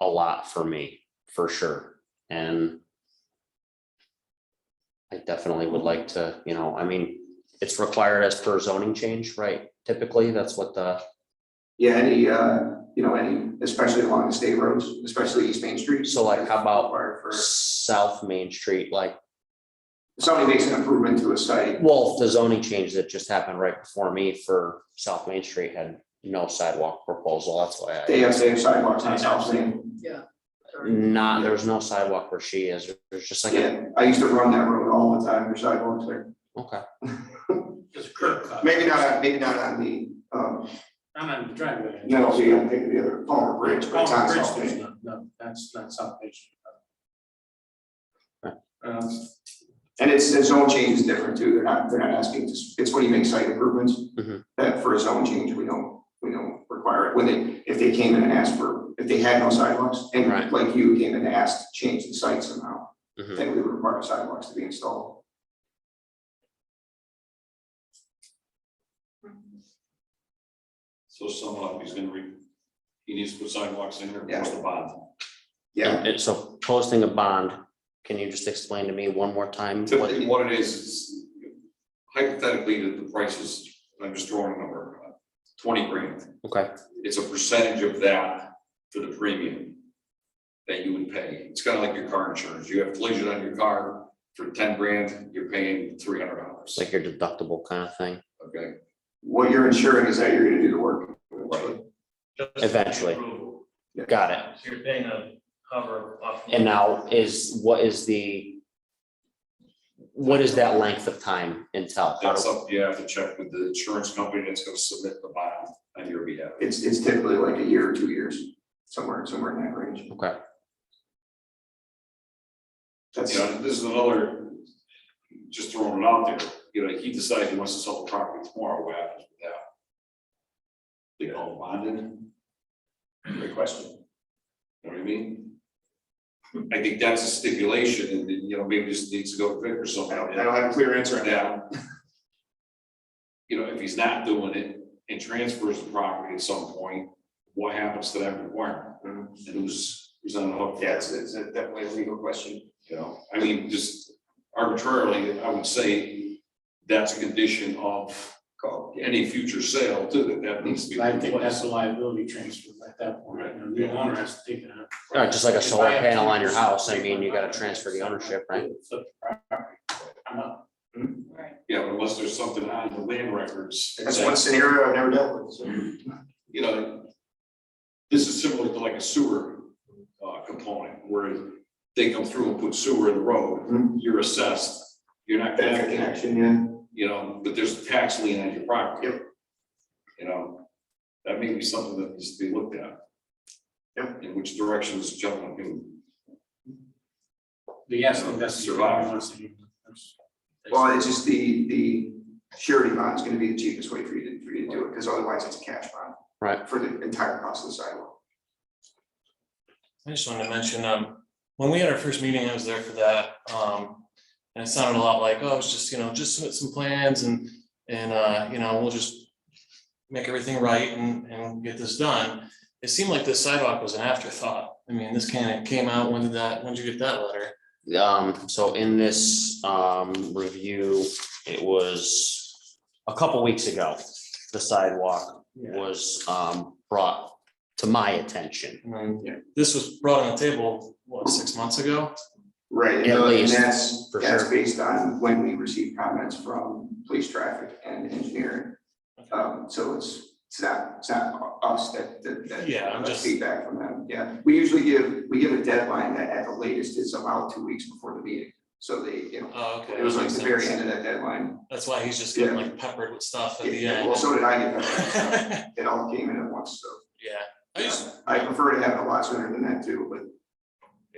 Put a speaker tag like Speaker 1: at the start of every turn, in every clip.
Speaker 1: a lot for me, for sure, and. I definitely would like to, you know, I mean, it's required as per zoning change, right? Typically, that's what the,
Speaker 2: Yeah, any, uh, you know, any, especially along the state roads, especially East Main Street.
Speaker 1: So, like, how about-
Speaker 2: Required for- If
Speaker 1: South Main Street, like,
Speaker 2: somebody makes an improvement to a site,
Speaker 1: well, the zoning change that just happened right before me for South Main Street had no sidewalk proposal, that's why I.
Speaker 2: they have to have sidewalks on South Main.
Speaker 1: Not, there's no sidewalk where she is, there's just like, a-
Speaker 2: Yeah, I used to run that road all the time, there's sidewalks there.
Speaker 1: okay,
Speaker 3: Just curb cut.
Speaker 2: Maybe not, on- maybe not on the, um,
Speaker 3: Not on the driveway.
Speaker 2: no, see, I'm thinking the other, Palmer Bridge, but it's
Speaker 3: Oh,
Speaker 2: on
Speaker 3: bridge,
Speaker 2: South Main.
Speaker 3: no, No, that's not salvation.
Speaker 1: Right.
Speaker 3: Um,
Speaker 2: And it's, the zone change is different too, they're not, they're not asking, to- it's when you make site improvements.
Speaker 1: Mhm.
Speaker 2: That for a zone change, we don't, we don't require it, when they, if they came in and asked for, if they had no sidewalks,
Speaker 1: Right.
Speaker 2: and like you came in and asked, to change the site somehow,
Speaker 1: mhm.
Speaker 2: then we would require sidewalks to be installed.
Speaker 4: So sum it up, he's gonna re, he needs to put sidewalks in there,
Speaker 2: Yeah.
Speaker 4: what's the bond?
Speaker 2: Yeah,
Speaker 1: And so posting a bond, can you just explain to me one more time? what-
Speaker 4: Typically, what it is, is hypothetically, the the price is, I'm just throwing a number, uh, twenty grand.
Speaker 1: Okay,
Speaker 4: It's a percentage of that for the premium that you would pay. It's kind of like your car insurance. You have collision on your car for ten grand, you're paying three hundred dollars.
Speaker 1: it's like your deductible kind of thing,
Speaker 4: Okay,
Speaker 2: what you're ensuring is that you're gonna do the work.
Speaker 4: Right.
Speaker 1: Eventually. got it.
Speaker 5: So you're paying a cover off.
Speaker 1: And now is, what is the? What is that length of time until?
Speaker 4: that's up, you have to check with the insurance company that's gonna submit the bond on your behalf.
Speaker 2: It's, it's typically like a year or two years, somewhere, somewhere in that range.
Speaker 1: Okay,
Speaker 2: That's,
Speaker 4: You know, this is another, just throwing it out there, you know, he decides he wants to sell the property tomorrow, what happens with that? They all bonded? Great question. You know what I mean? I think that's a stipulation, and then, you know, maybe just needs to go to Vic or
Speaker 2: I
Speaker 4: something.
Speaker 2: don't, I don't have a clear answer on that.
Speaker 4: Yeah. You know, if he's not doing it and transfers the property at some point, what happens to that requirement? And who's, who's on the hook? for that?
Speaker 2: Mm-hmm. Yeah, it's, it's a- definitely a legal question.
Speaker 4: You know, I mean, just arbitrarily, I would say that's a condition of any future sale too, that that needs to be.
Speaker 3: I think that's
Speaker 4: replaced.
Speaker 3: a liability transfer at that point, you know, the owner has to take it out.
Speaker 1: All right, just like a
Speaker 3: If I
Speaker 1: solar
Speaker 3: have
Speaker 1: panel
Speaker 3: two
Speaker 1: on your
Speaker 3: acres,
Speaker 1: house, I
Speaker 3: if
Speaker 1: mean, you gotta
Speaker 3: have
Speaker 1: transfer the
Speaker 3: two acres,
Speaker 1: ownership, right?
Speaker 3: flip the property. I'm up.
Speaker 4: Yeah, but unless there's something on the land records.
Speaker 2: That's
Speaker 4: that-
Speaker 2: one scenario I've never dealt with, so.
Speaker 4: you know, this is similar to like a sewer uh, component where they come through and put sewer in the road,
Speaker 2: Mhm.
Speaker 4: you're assessed, you're not
Speaker 2: Benefit
Speaker 4: connected,
Speaker 2: connection, yeah.
Speaker 4: you know, but there's a tax lien on your property.
Speaker 2: Yep.
Speaker 4: You know, that may be something that needs to be looked at.
Speaker 2: Yep.
Speaker 4: In which direction this gentleman can,
Speaker 3: The estimate, that's.
Speaker 4: Survive.
Speaker 2: Well, it's just the, the surety bond is gonna be the cheapest way for you to, for you to do it, because otherwise it's a cash bond.
Speaker 1: Right.
Speaker 2: For the entire cost of the sidewalk.
Speaker 5: I just wanted to mention, um, when we had our first meeting, I was there for that, um, and it sounded a lot like, oh, it's just, you know, just submit some plans and, and, uh, you know, we'll just make everything right and, and get this done. It seemed like this sidewalk was an afterthought. I mean, this kind of came out, when did that, when did you get that letter?
Speaker 1: Um, so in this, um, review, it was a couple weeks ago, the sidewalk was, um, brought to my attention.
Speaker 5: And
Speaker 2: Yeah.
Speaker 5: then this was brought on the table, what, six months ago?
Speaker 1: At
Speaker 2: Right. And
Speaker 1: least,
Speaker 2: that's,
Speaker 1: for
Speaker 2: that's
Speaker 1: sure.
Speaker 2: based on when we receive comments from police traffic and engineering. Um, so it's, it's not, it's not us that, that, that.
Speaker 5: Yeah, I'm
Speaker 2: that's
Speaker 5: just-
Speaker 2: Feedback from them, yeah. We usually give, we give a deadline that at the latest is about two weeks before the meeting, so they, you know,
Speaker 5: Oh, okay.
Speaker 2: it was
Speaker 5: that
Speaker 2: like
Speaker 5: makes
Speaker 2: the very
Speaker 5: sense.
Speaker 2: end of that deadline.
Speaker 5: That's why he's just getting like peppered with stuff at the
Speaker 2: Yeah, Well,
Speaker 5: end.
Speaker 2: so did I get that.
Speaker 5: Yeah,
Speaker 2: It all came in at once, so.
Speaker 5: I just,
Speaker 2: I prefer to have it a lot sooner than that too, but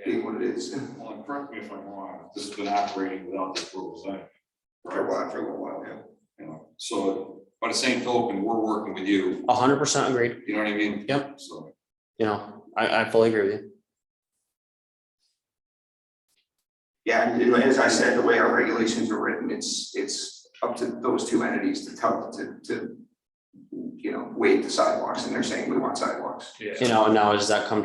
Speaker 2: being what it is,
Speaker 4: well, and correct me if I'm wrong, this has been operating without the approvals, I.
Speaker 2: for a while, for a little while, yeah.
Speaker 4: You know, so by the same token, we're working with you,
Speaker 1: A hundred percent agreed,
Speaker 4: you know what I mean?
Speaker 1: Yep.
Speaker 4: So.
Speaker 1: you know, I, I fully agree with you.
Speaker 2: Yeah, and as I said, the way our regulations are written, it's, it's up to those two entities to tell, to, to, you know, waive the sidewalks, and they're saying we want sidewalks.
Speaker 5: yeah.
Speaker 1: You know, and now does that come